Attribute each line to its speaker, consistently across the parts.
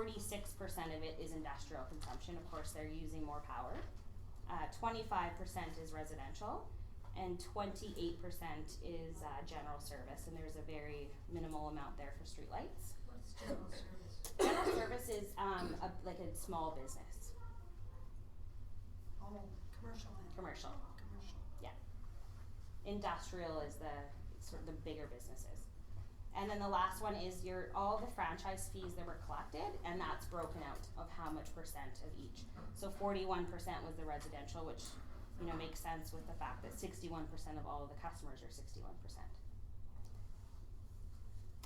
Speaker 1: Forty-six percent of it is industrial consumption, of course, they're using more power. Uh, twenty-five percent is residential, and twenty-eight percent is, uh, general service, and there's a very minimal amount there for streetlights.
Speaker 2: What's general service?
Speaker 1: General service is, um, a, like a small business,
Speaker 2: Oh, commercial and.
Speaker 1: commercial.
Speaker 2: Commercial.
Speaker 1: industrial is the sort of the bigger businesses. And then the last one is your all the franchise fees that were collected and that's broken out of how much percent of each. So forty-one percent was the residential, which, you know, makes sense with the fact that sixty-one percent of all of the customers are sixty-one percent.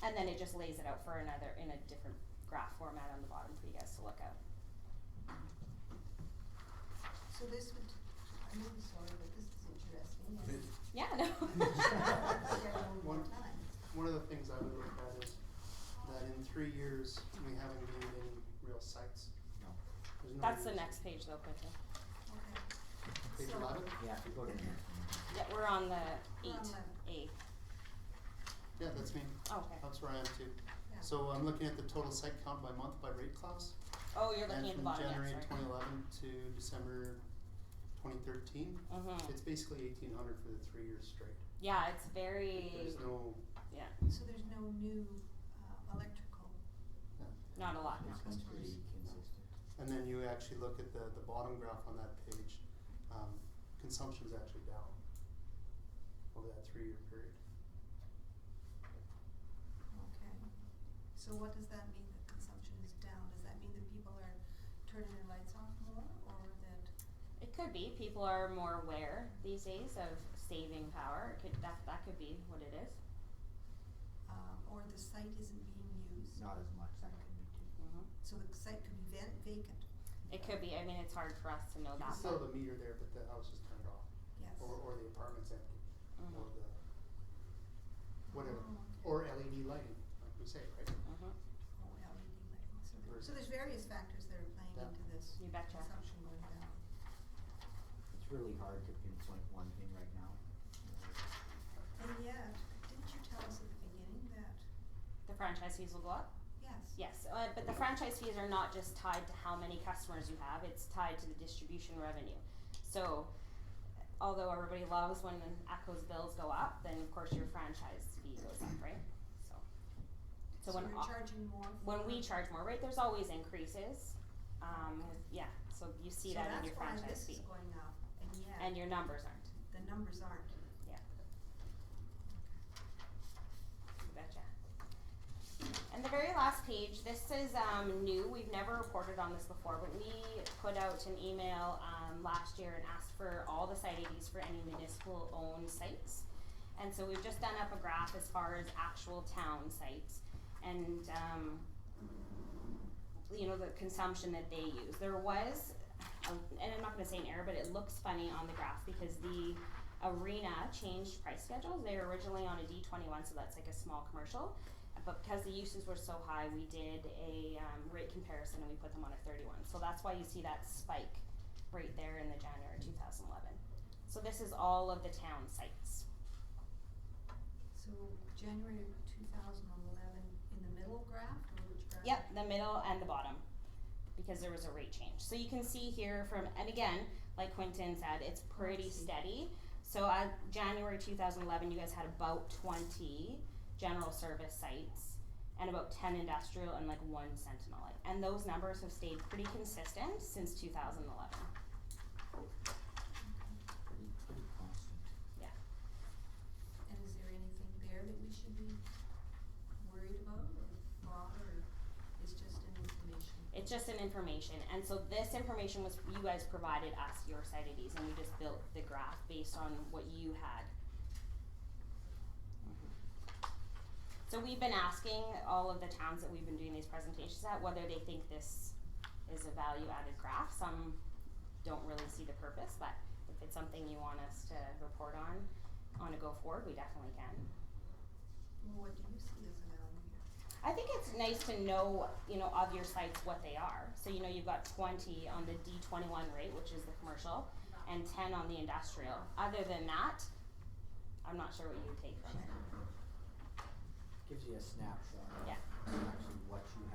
Speaker 1: And then it just lays it out for another in a different graph format on the bottom for you guys to look at.
Speaker 2: So this would, I'm really sorry, but this is interesting. and-
Speaker 1: Yeah, no.
Speaker 2: Yeah, one more
Speaker 3: One-
Speaker 2: time.
Speaker 3: One of the things I would look at is that in three years, we haven't gained any real sites.
Speaker 4: No.
Speaker 3: There's no
Speaker 1: That's the
Speaker 3: reason.
Speaker 1: next page though, Quentin.
Speaker 2: Okay.
Speaker 3: Page
Speaker 2: So-
Speaker 3: eleven?
Speaker 4: Yeah, if you go to the
Speaker 1: Yeah, we're on the
Speaker 2: We're
Speaker 1: eight,
Speaker 2: on
Speaker 1: eight.
Speaker 3: Yeah, that's me.
Speaker 1: Oh, Okay.
Speaker 3: That's where I am too.
Speaker 2: Yeah.
Speaker 3: So I'm looking at the total site count by month by rate class.
Speaker 1: Oh, you're looking at the bottom,
Speaker 3: And from
Speaker 1: yes,
Speaker 3: January
Speaker 1: right.
Speaker 3: twenty eleven to December twenty thirteen,
Speaker 1: Mm-hmm,
Speaker 3: it's basically eighteen hundred for the three years straight.
Speaker 1: yeah, it's very,
Speaker 3: There's no,
Speaker 1: yeah,
Speaker 2: So there's no new, uh, electrical.
Speaker 1: not a lot, no.
Speaker 4: It's been Ah, pretty consistent.
Speaker 3: and then you actually look at the, the bottom graph on that page, um, consumption's actually down over that three-year period.
Speaker 2: Okay. So what does that mean, that consumption is down? Does that mean that people are turning their lights off more or that?
Speaker 1: It could be, people are more aware these days of saving power, it could, that, that could be what it is.
Speaker 2: um, or the site isn't being used.
Speaker 4: Not as much, that could be too.
Speaker 1: Mm-hmm.
Speaker 2: So the site could be va- vacant,
Speaker 1: It could be, I mean, it's hard for us to know
Speaker 3: You
Speaker 1: that,
Speaker 3: can still
Speaker 1: but,
Speaker 3: have the meter there, but the house is turned off,
Speaker 2: yes.
Speaker 3: or, or the apartment's empty, or
Speaker 1: mm-hmm,
Speaker 3: the, whatever,
Speaker 2: Oh,
Speaker 3: or LED lighting, like we say, right?
Speaker 1: mm-hmm,
Speaker 2: oh, LED lighting, so there,
Speaker 3: Versus-
Speaker 2: so there's various factors that are playing
Speaker 3: Yeah.
Speaker 2: into this
Speaker 1: you betcha.
Speaker 2: consumption going down.
Speaker 4: It's really hard to pinpoint one thing right now.
Speaker 2: And yet, didn't you tell us at the beginning that,
Speaker 1: The franchise fees will go up?
Speaker 2: yes,
Speaker 1: Yes, uh, but the franchise fees are not just tied to how many customers you have, it's tied to the distribution revenue. So, although everybody loves when ACCO's bills go up, then of course your franchise fee goes up, right? So, so
Speaker 2: so
Speaker 1: when,
Speaker 2: you're
Speaker 1: au-
Speaker 2: charging more for.
Speaker 1: when we charge more, right, there's always increases, um, with- yeah, so you see that in your
Speaker 2: So that's why
Speaker 1: franchise
Speaker 2: this
Speaker 1: fee,
Speaker 2: is going up, and
Speaker 1: and
Speaker 2: yet,
Speaker 1: your numbers aren't,
Speaker 2: the numbers aren't.
Speaker 1: you betcha. And the very last page, this is um, new. We've never reported on this before, but we put out an email um, last year and asked for all the site IDs for any municipal owned sites. And so we've just done up a graph as far as actual town sites and um, you know the consumption that they use. There was, a, and I'm not going to say an error, but it looks funny on the graph because the arena changed price schedules. They were originally on a D21, so that's like a small commercial but because the uses were so high, we did a um, rate comparison and we put them on a thirty-one. So that's why you see that spike right there in the January two thousand eleven. So this is all of the town sites.
Speaker 2: So January of two thousand eleven, in the middle graph, or which graph?
Speaker 1: Yep, the middle and the bottom, because there was a rate change. So you can see here from, and again, like Quentin said, it's pretty
Speaker 2: Let's see.
Speaker 1: steady. So uh, January two thousand eleven, you guys had about twenty general service sites and about ten industrial and like one sentinel light. And those numbers have stayed pretty consistent since two thousand eleven.
Speaker 4: Pretty, pretty constant.
Speaker 2: And is there anything there that we should be worried about or thought or it's just an information?
Speaker 1: It's just an information, and so this information was, you guys provided us your site IDs, and we just built the graph based on what you had. So we've been asking all of the towns that we've been doing these presentations at, whether they think this is a value-added graph, some don't really see the purpose, but if it's something you want us to report on, on a go-forward, we definitely can.
Speaker 2: Well, What do you see as a value here?
Speaker 1: I think it's nice to know, you know, of your sites what they are. So you know you've got twenty on the D twenty one rate, which is the commercial, and ten on the industrial. Other than that, I'm not sure what you would take from it.
Speaker 4: Gives you a snapshot of
Speaker 1: Yeah.
Speaker 4: actually what you